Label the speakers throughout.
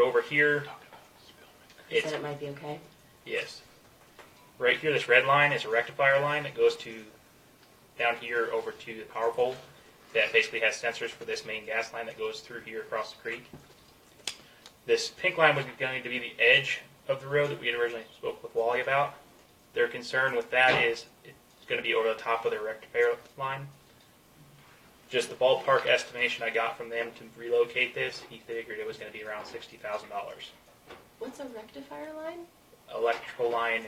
Speaker 1: over here,
Speaker 2: You said
Speaker 1: it's,
Speaker 2: it might be okay?
Speaker 1: yes. Right here, this red line is a rectifier line that goes to, down here over to the power pole. That basically has sensors for this main gas line that goes through here across the creek. This pink line would be going to be the edge of the road that we had originally spoke with Wally about. Their concern with that is it's gonna be over the top of their rectifier line. Just the ballpark estimation I got from them to relocate this, he figured it was gonna be around sixty thousand dollars.
Speaker 2: What's a rectifier line?
Speaker 1: electrical line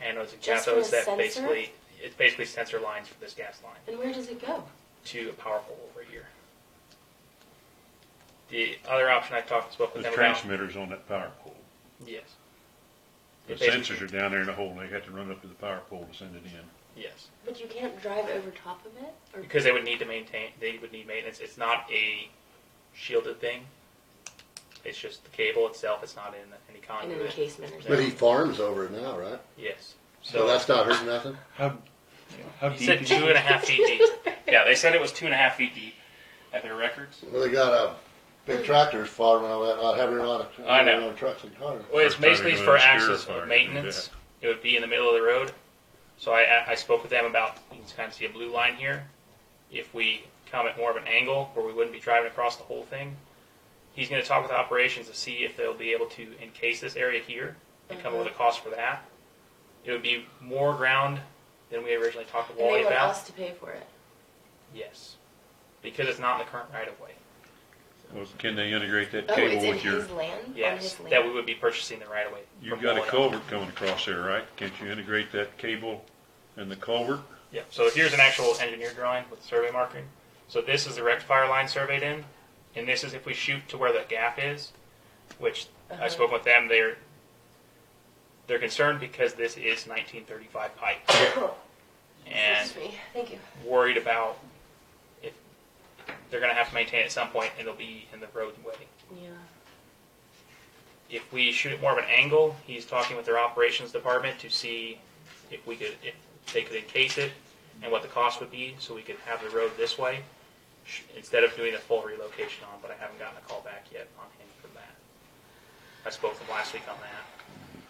Speaker 1: and anodes and
Speaker 2: Just for
Speaker 1: cathodes
Speaker 2: the
Speaker 1: that
Speaker 2: sensor?
Speaker 1: basically it's basically sensor lines for this gas line
Speaker 2: And where does it go?
Speaker 1: to a power pole over here. The other option I talked spoke with
Speaker 3: The
Speaker 1: them about.
Speaker 3: transmitter's on that power pole.
Speaker 1: Yes.
Speaker 3: The
Speaker 1: It basically-
Speaker 3: sensors are down there in the hole, they got to run up to the power pole to send it in.
Speaker 1: Yes,
Speaker 2: But you can't drive over top of it? Or
Speaker 1: because they would need to maintain. They would need maintenance. It's not a shielded thing. It's just the cable itself. It's not in any
Speaker 2: in
Speaker 1: conduit.
Speaker 2: an encasement or
Speaker 4: But
Speaker 2: something?
Speaker 4: he farms over it now, right?
Speaker 1: yes.
Speaker 4: So, that's not hurting nothing.
Speaker 3: How, how
Speaker 1: he
Speaker 3: deep
Speaker 1: said
Speaker 3: is
Speaker 1: two and
Speaker 3: it?
Speaker 1: a half feet deep. Yeah, they said it was two and a half feet deep at their records.
Speaker 4: Well, they got a big tractors farming all that, not having a lot of
Speaker 1: I know.
Speaker 4: a lot of trucks and cars.
Speaker 1: Well, it's
Speaker 3: First time
Speaker 1: basically
Speaker 3: you go
Speaker 1: for
Speaker 3: in a steer
Speaker 1: access
Speaker 3: fire,
Speaker 1: of
Speaker 3: you
Speaker 1: maintenance. It would be in the middle of the road. So I, I spoke with them about, you can kind of see a blue line here. If we come at more of an angle where we wouldn't be driving across the whole thing, he's going to talk with operations to see if they'll be able to encase this area here and come up
Speaker 2: Mm-hmm.
Speaker 1: with a cost for that. It would be more ground than we originally talked with
Speaker 2: And they
Speaker 1: Wally
Speaker 2: want
Speaker 1: about.
Speaker 2: us to pay for it.
Speaker 1: Yes. Because it's not in the current right of way.
Speaker 3: Well, Can they integrate that
Speaker 2: Oh, it's
Speaker 3: cable
Speaker 2: in
Speaker 3: with your,
Speaker 2: his land? On
Speaker 1: Yes.
Speaker 2: his land?
Speaker 1: That we would be purchasing the right of way.
Speaker 3: you've
Speaker 1: from
Speaker 3: got a
Speaker 1: Wally.
Speaker 3: culvert coming across there, right? Can't you integrate that cable and the culvert?
Speaker 1: Yeah, so here's an actual engineer drawing with survey marking. So this is the rectifier line surveyed in, and this is if we shoot to where the gap is, which I
Speaker 2: Uh-huh.
Speaker 1: spoke with them, they're, they're concerned because this is nineteen thirty-five pipe, and
Speaker 2: Excuse me. Thank you.
Speaker 1: worried about if, they're gonna have to maintain it at some point, and it'll be in the roadway.
Speaker 2: Yeah.
Speaker 1: If we shoot it more of an angle, he's talking with their operations department to see if we could, if they could encase it and what the cost would be, so we could have the road this way, sh- instead of doing a full relocation on, but I haven't gotten a call back yet on him for that. I spoke with him last week on that.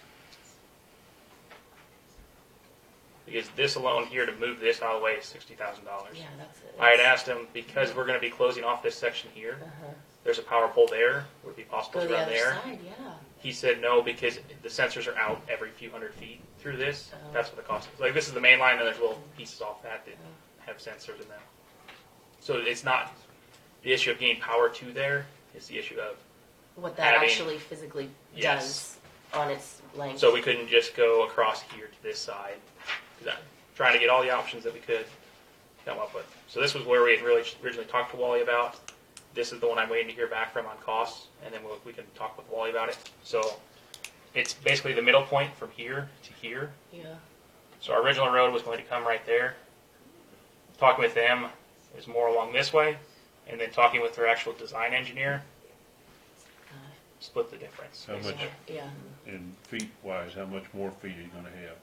Speaker 1: Because this alone here, to move this out of the way is sixty thousand dollars.
Speaker 2: Yeah, that's it.
Speaker 1: I had asked him, because we're gonna be closing off this section here,
Speaker 2: Uh-huh.
Speaker 1: there's a power pole there, would it be possible
Speaker 2: Go
Speaker 1: to
Speaker 2: the
Speaker 1: run
Speaker 2: other
Speaker 1: there?
Speaker 2: side, yeah.
Speaker 1: He said no because the sensors are out every few hundred feet through this.
Speaker 2: Oh.
Speaker 1: That's what the cost is. Like this is the main line, and there's little pieces off that that have sensors in them. So it's not the issue of getting power to there. It's the issue of
Speaker 2: What that
Speaker 1: Having-
Speaker 2: actually physically
Speaker 1: Yes.
Speaker 2: does on its length.
Speaker 1: so we couldn't just go across here to this side. 'Cause I'm trying to get all the options that we could come up with. So this was where we had really originally talked to Wally about. This is the one I'm waiting to hear back from on costs, and then we'll, we can talk with Wally about it. So it's basically the middle point from here to here.
Speaker 2: yeah.
Speaker 1: So our original road was going to come right there. Talking with them is more along this way, and then talking with their actual design engineer, split the difference.
Speaker 3: How much,
Speaker 2: yeah. Yeah.
Speaker 3: in feet wise, how much more feet are you gonna have?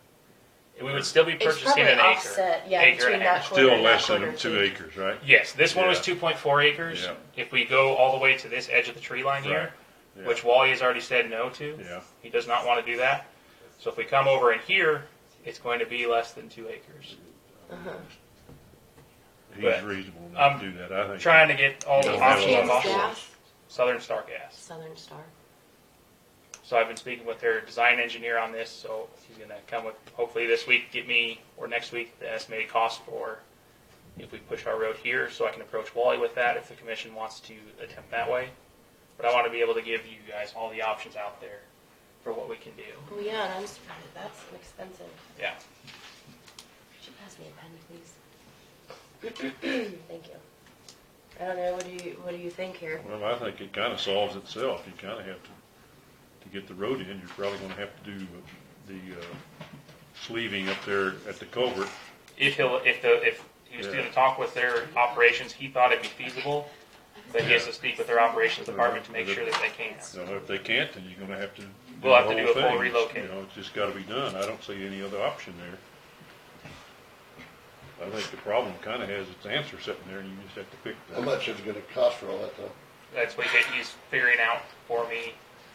Speaker 1: And we would still be
Speaker 2: It's
Speaker 1: purchasing
Speaker 2: probably
Speaker 1: an acre.
Speaker 2: offset, yeah,
Speaker 1: Acre
Speaker 2: between
Speaker 1: and a half.
Speaker 2: that corner
Speaker 3: Still
Speaker 2: and that
Speaker 3: less than
Speaker 2: corner
Speaker 3: two
Speaker 2: too.
Speaker 3: acres, right?
Speaker 1: Yes, this one was
Speaker 3: Yeah.
Speaker 1: 2.4 acres.
Speaker 3: Yeah.
Speaker 1: If we go all the way to this edge of the tree line here,
Speaker 3: Yeah.
Speaker 1: which Wally has already said no to,
Speaker 3: Yeah.
Speaker 1: he does not want to do that. So if we come over in here, it's going to be less than two acres.
Speaker 2: Uh-huh.
Speaker 3: He's
Speaker 1: but
Speaker 3: reasonable
Speaker 1: I'm
Speaker 3: not to do that, I think.
Speaker 1: Trying to get all the
Speaker 3: Yeah, we have a
Speaker 1: options
Speaker 3: lot of
Speaker 1: possible.
Speaker 2: Gas,
Speaker 1: Southern Star Gas.
Speaker 2: Southern Star.
Speaker 1: So I've been speaking with their design engineer on this, so he's gonna come with, hopefully this week, get me, or next week, the estimated cost for if we push our road here, so I can approach Wally with that if the commission wants to attempt that way. But I wanna be able to give you guys all the options out there for what we can do.
Speaker 2: Oh yeah, and I'm surprised. That's expensive.
Speaker 1: Yeah.
Speaker 2: Could you pass me a pen, please? Thank you. I don't know. What do you What do you think here?
Speaker 3: Well, I think it kinda solves itself, you kinda have to, to get the road in, you're probably gonna have to do the, uh, sleeving up there at the culvert.
Speaker 1: If he'll, if the, if he was gonna talk with their operations, he thought it'd be feasible, but he has to speak with their operations department to make sure that they can.
Speaker 3: You know, if they can't, then you're gonna have to. do
Speaker 1: We'll have
Speaker 3: the
Speaker 1: to do
Speaker 3: whole
Speaker 1: a full
Speaker 3: thing.
Speaker 1: relocate.
Speaker 3: You know, it's just gotta be done, I don't see any other option there. I think the problem kinda has its answer sitting there, and you just have to pick
Speaker 4: How
Speaker 3: that.
Speaker 4: much is it going to cost for all that though?
Speaker 1: That's what he's figuring out for me